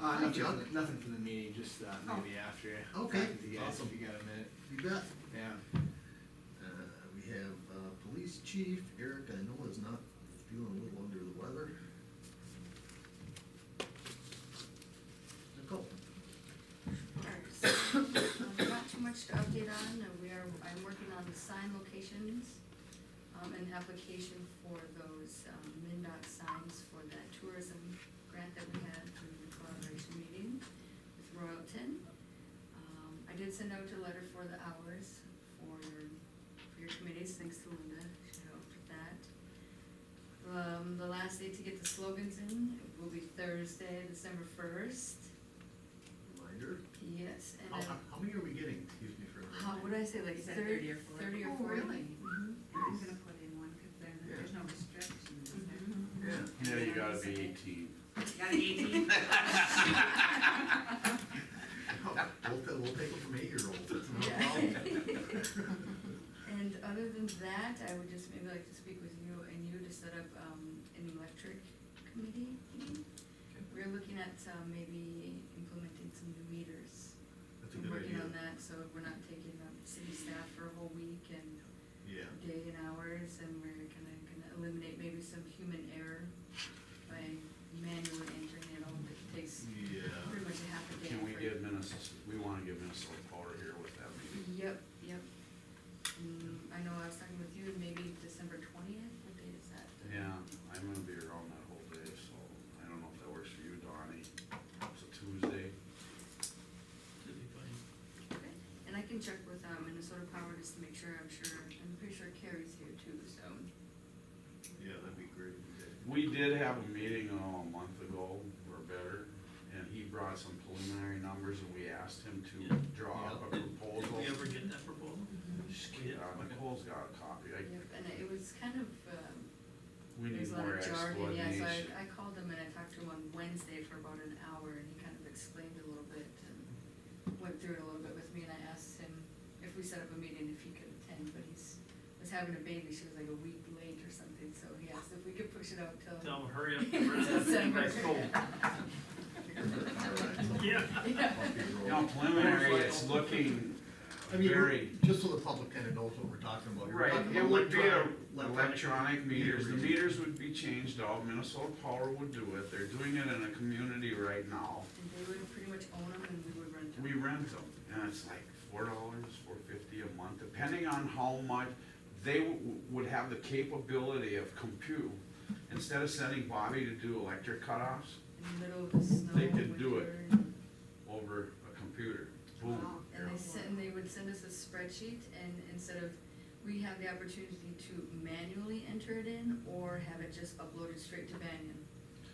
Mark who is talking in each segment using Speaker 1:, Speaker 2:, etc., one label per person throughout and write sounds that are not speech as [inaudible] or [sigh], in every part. Speaker 1: Uh,
Speaker 2: Hi,
Speaker 1: nothing,
Speaker 2: John.
Speaker 1: for the- nothing for the meeting, just, uh,
Speaker 2: Oh.
Speaker 1: maybe after.
Speaker 2: Okay,
Speaker 1: talking to you guys,
Speaker 2: awesome.
Speaker 1: If you got a minute,
Speaker 2: You bet.
Speaker 1: yeah.
Speaker 2: Uh, we have, uh, police chief, Eric, I know is not feeling a little under the weather. Nicole,
Speaker 3: Alright, so, [coughs] um, Not too much to update on, Uh, we are, I'm working on the sign locations, um, and application for those, um, MinDOT signs for that tourism grant that we had through the collaboration meeting with Royalton. Um, I did send out a letter for the hours for your, for your committees, thanks to Linda, she helped with that. Um, the last day to get the slogans in will be Thursday, December first.
Speaker 2: reminder,
Speaker 3: Yes, and
Speaker 2: how,
Speaker 3: then,
Speaker 2: how how many are we getting, excuse me for a
Speaker 3: how,
Speaker 2: minute.
Speaker 3: what did I say, like
Speaker 4: Is that
Speaker 3: thirty, thirty or
Speaker 4: Oh,
Speaker 3: forty?
Speaker 4: really?
Speaker 3: Mhm.
Speaker 4: I'm gonna put in one, cause there, there's no restrictions, is there?
Speaker 3: Mhm.
Speaker 2: Yeah,
Speaker 5: No, you gotta be eighteen.
Speaker 4: Got an [laughs] eighteen?
Speaker 2: [laughs] we'll, ta- we'll take it from eight-year-olds, that's no
Speaker 3: [laughs] Yeah.
Speaker 2: problem.
Speaker 3: [laughs] And other than that, I would just maybe like to speak with you and you to set up, um, an electric committee meeting. We're looking at, um, maybe implementing some new meters.
Speaker 2: That's a
Speaker 3: I'm
Speaker 2: good idea,
Speaker 3: Working on that, so we're not taking up city staff for a whole week and
Speaker 2: yeah.
Speaker 3: day and hours, and we're gonna, gonna eliminate maybe some human error by manually entering it all, it takes
Speaker 2: Yeah,
Speaker 3: pretty much a half a day.
Speaker 5: Can we
Speaker 3: for-
Speaker 5: give Minnesota, we wanna give Minnesota Power here with that meeting?
Speaker 3: Yep, yep. Mm, I know, I was talking with you, maybe December twentieth, what date is that? The-
Speaker 5: Yeah, I'm gonna be around that whole day, so I don't know if that works for you, Donnie. It's a Tuesday.
Speaker 3: Okay, and I can check with, um, Minnesota Power just to make sure, I'm sure, I'm pretty sure Carrie's here too, so.
Speaker 2: yeah, that'd be great.
Speaker 5: We did have a meeting uh, a month ago or better, and he brought some preliminary numbers and we asked him to
Speaker 6: Yeah.
Speaker 5: draw up a
Speaker 6: Did
Speaker 5: proposal.
Speaker 6: we ever get that proposal? Just kidding.
Speaker 5: Uh, Nicole's got a copy. I,
Speaker 3: Yep, and it was kind of, um,
Speaker 5: we
Speaker 3: There's
Speaker 5: need
Speaker 3: a lot
Speaker 5: more
Speaker 3: of jargon, yeah, so
Speaker 5: explanation.
Speaker 3: I, I called him and I talked to him on Wednesday for about an hour and he kind of explained a little bit and went through it a little bit with me and I asked him if we set up a meeting, if he could attend, but he's, was having a baby, she was like a week late or something, so he asked if we could push it out till.
Speaker 6: Tell them hurry up, get rid of that thing by school.
Speaker 2: Alright.
Speaker 6: Yeah.
Speaker 3: [laughs] Yeah.
Speaker 2: Off you roll.
Speaker 5: Now preliminary, it's looking
Speaker 2: I mean, we're-
Speaker 5: very.
Speaker 2: just so the public kind of knows what we're talking about. here. We're
Speaker 5: Right,
Speaker 2: talking
Speaker 5: it
Speaker 2: about
Speaker 5: would be a
Speaker 2: electronic-
Speaker 5: electronic meters, the
Speaker 2: reading.
Speaker 5: meters would be changed out, Minnesota Power would do it, they're doing it in a community right now.
Speaker 3: And they would pretty much own them and we would rent them.
Speaker 5: We rent them, and it's like four dollars, four fifty a month, depending on how much, they w- would have the capability of compute. Instead of sending Bobby to do electric cutoffs
Speaker 3: In the middle of the snow.
Speaker 5: They could do it.
Speaker 3: winter, and-
Speaker 5: over a computer, boom.
Speaker 4: Wow.
Speaker 3: And they sent, and they would send us a spreadsheet and instead of, we have the opportunity to manually enter it in or have it just uploaded straight to Banyan.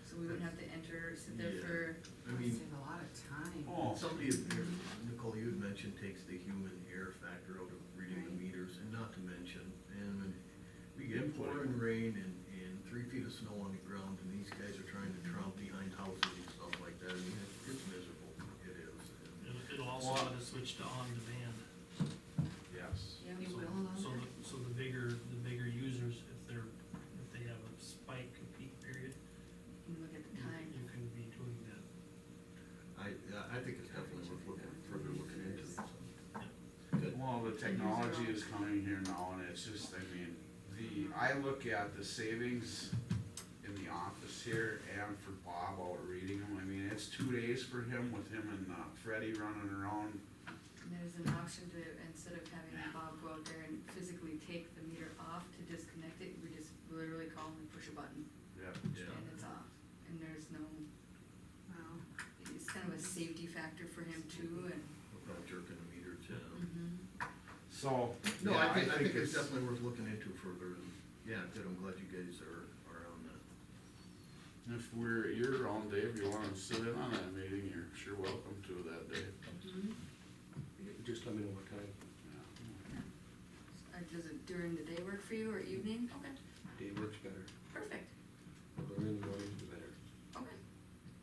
Speaker 3: So we wouldn't have to enter, sit
Speaker 2: Yeah.
Speaker 3: there for,
Speaker 2: I mean,
Speaker 4: Wasted a lot of time.
Speaker 5: Oh,
Speaker 2: somebody, had- here, Nicole, you had mentioned takes the human error factor out of reading the
Speaker 3: Right.
Speaker 2: meters, and not to mention, and when we
Speaker 5: Yeah,
Speaker 2: get
Speaker 5: put it-
Speaker 2: pouring rain and, and three feet of snow on the ground, and these guys are trying to tromp behind houses and stuff like that, I mean, it's- it's miserable, it is. and-
Speaker 6: It'll- It'll also
Speaker 5: Well-
Speaker 6: let us switch to on-demand.
Speaker 5: yes.
Speaker 3: yeah,
Speaker 4: It
Speaker 6: So-
Speaker 4: will
Speaker 6: So,
Speaker 4: allow
Speaker 6: the- so the bigger, the bigger users, if they're, if they have a spike, a peak period,
Speaker 3: you look at the
Speaker 6: you
Speaker 3: time.
Speaker 6: you can be doing that.
Speaker 2: I, I think it's definitely worth looking, further looking into. so. Good.
Speaker 5: Well, the technology is coming here now, and it's just, I mean, the, I look at the savings in the office here and for Bob out reading them, I mean, it's two days for him with him and uh, Freddie running around.
Speaker 3: And there's an option to, instead of having Bob go out there and physically take the meter off to disconnect it, we just literally call him and push a button
Speaker 5: Yeah.
Speaker 2: Yeah.
Speaker 3: and it's off. And there's no,
Speaker 4: Wow.
Speaker 3: it's kind of a safety factor for him too and.
Speaker 2: Without jerking the meter down.
Speaker 3: Mhm.
Speaker 5: So.
Speaker 2: No,
Speaker 5: yeah,
Speaker 2: I think, I think it's definitely worth looking into further, and, yeah, good, I'm glad you guys are, are on that.
Speaker 5: If we're, you're on, Dave, you wanna sit in on that meeting, you're sure welcome to that day.
Speaker 3: Mhm.
Speaker 7: Just let me know what time,
Speaker 5: Yeah.
Speaker 3: Uh, Does it during the day work for you or evening? Okay.
Speaker 7: day works better.